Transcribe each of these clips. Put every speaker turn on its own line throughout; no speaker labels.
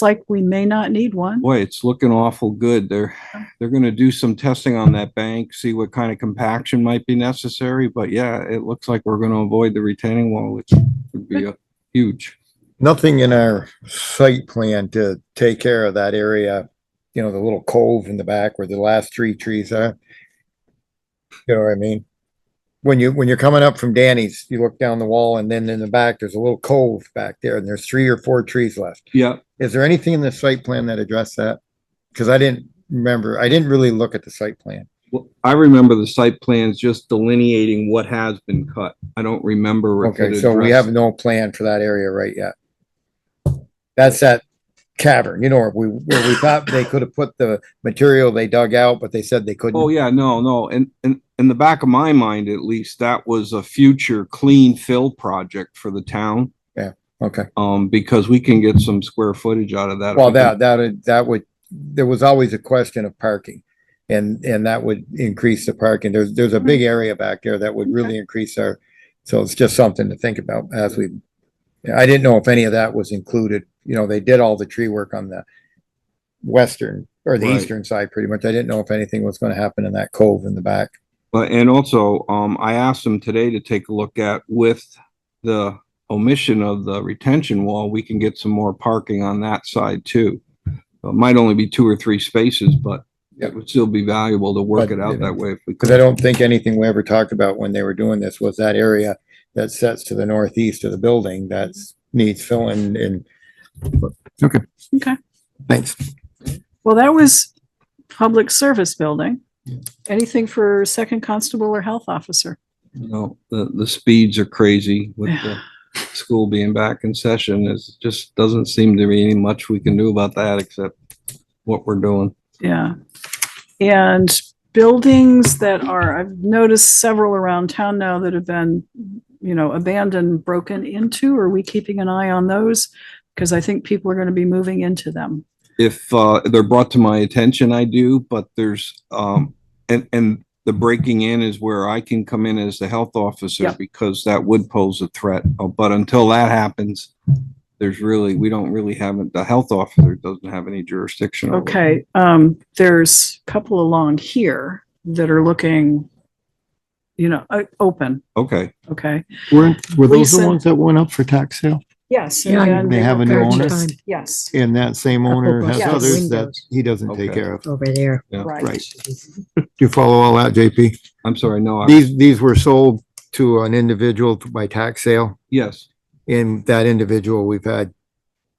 looks like we may not need one.
Boy, it's looking awful good. They're, they're gonna do some testing on that bank, see what kind of compaction might be necessary, but yeah, it looks like we're gonna avoid the retaining wall, which would be uh, huge.
nothing in our site plan to take care of that area, you know, the little cove in the back where the last three trees are. You know what I mean? When you, when you're coming up from Danny's, you look down the wall and then in the back, there's a little cove back there and there's three or four trees left.
Yeah,
Is there anything in the site plan that addressed that? Cause I didn't remember, I didn't really look at the site plan.
well, I remember the site plans just delineating what has been cut. I don't remember. if it
Okay, so we
addressed-
have no plan for that area right yet. That's that cavern, you know, where we, where we thought they could have put the material they dug out, but they said they
Oh,
couldn't.
yeah, no, no. And, and in the back of my mind, at least, that was a future clean fill project for the town.
Okay,
Um, because we can get some square footage out of that. if
well,
we can-
that, that, that would, there was always a question of parking. And, and that would increase the parking. There's, there's a big area back there that would really increase our, so it's just something to think about as we, I didn't know if any of that was included. You know, they did all the tree work on the western or the
Right.
eastern side pretty much. I didn't know if anything was going to happen in that cove in the back.
But, and also, um, I asked them today to take a look at with the omission of the retention wall, we can get some more parking on that side too. It might only be two or three spaces, but it would still be valuable to work
But,
it
you
out
know,
that way if we
Because I
could.
don't think anything we ever talked about when they were doing this was that area that sets to the northeast of the building that's needs filling and. Okay.
Okay.
Thanks.
Well, that was public service building. Anything for second constable or health officer?
You know, the, the speeds are crazy with the school being back in session. It just doesn't seem to be any much we can do about that except what we're doing.
Yeah. And buildings that are, I've noticed several around town now that have been, you know, abandoned, broken into. Are we keeping an eye on those? Because I think people are going to be moving into them.
if uh, they're brought to my attention, I do, but there's, um, and, and the breaking in is where I can come in as the health officer
Yep.
because that would pose a threat. Uh, But until that happens, there's really, we don't really have, it- the health officer doesn't have any jurisdiction. over it.
Okay, um, there's a couple along here that are looking, you know, o- open,
Okay,
okay?
Were, were those
Lisa.
the ones that went up for tax sale?
Yes.
Yeah,
and
you-
then
They have a new
they're
owner?
purchased. Yes,
And that same owner
couple
has
Yes.
others that
windows.
he doesn't take
Okay.
care of.
over there.
Yeah,
right.
right.
You follow all that, JP?
I'm sorry, no, I-
These, these were sold to an individual by tax sale
yes,
and that individual we've had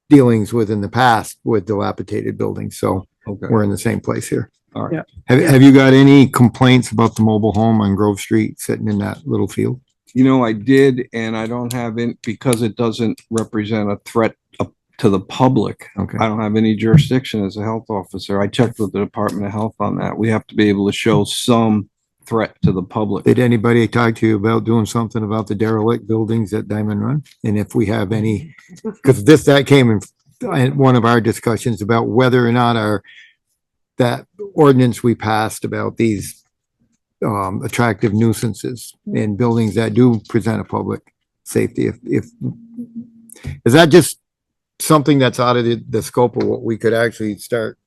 dealings with in the past with dilapidated buildings. So
okay.
we're in the same place here.
All right.
Yeah.
Have, have you got any complaints about the mobile home on Grove Street sitting in that little field?
You know, I did, and I don't have it because it doesn't represent a threat up to the public.
Okay.
I don't have any jurisdiction as a health officer. I checked with the Department of Health on that. We have to be able to show some threat to the public.
Did anybody talk to you about doing something about the derelict buildings at Diamond Run? And if we have any, because this, that came in, in one of our discussions about whether or not our, that ordinance we passed about these um, attractive nuisances in buildings that do present a public safety, if, if, is that just something that's out of the, the scope of what we could actually start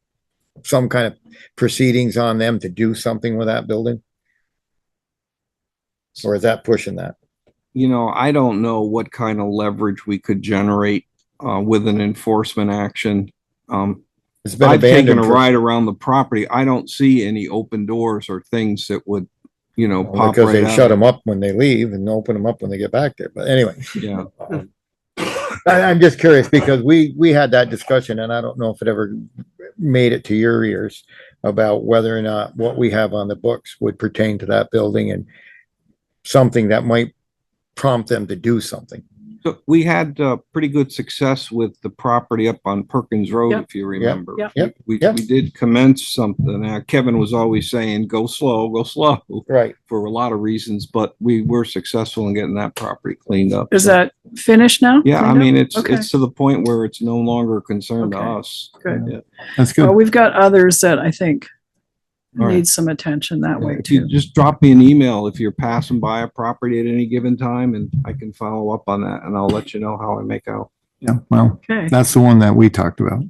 some kind of proceedings on them to do something with that building? Or is that pushing that?
You know, I don't know what kind of leverage we could generate uh, with an enforcement action. Um,
It's been
I've taken
abandoned.
a
for-
ride around the property. I don't see any open doors or things that would, you know,
Well,
pop
Because
right
they shut
out.
them up when they leave and open them up when they get back there. But anyway,
Yeah,
I, I'm just curious because we, we had that discussion and I don't know if it ever made it to your ears about whether or not what we have on the books would pertain to that building and something that might prompt them to do something.
So we had uh, pretty good success with the property up on Perkins Road,
Yep.
if you remember.
Yep.
Yep.
We,
Yep.
we did commence something. Uh, Kevin was always saying, go slow, go slow
Right.
for a lot of reasons, but we were successful in getting that property cleaned up.
Is that finished now?
Yeah, I
Cleaned up?
mean, it's,
Okay.
it's to the point where it's no longer a concern to
Okay.
us.
Good.
Yeah.
That's
Well,
good.
we've got others that I think
All right.
need some attention that way
If you
too.
Just drop me an email if you're passing by a property at any given time and I can follow up on that and I'll let you know how I make out.
Yeah, well,
Okay.
that's the one that we talked about.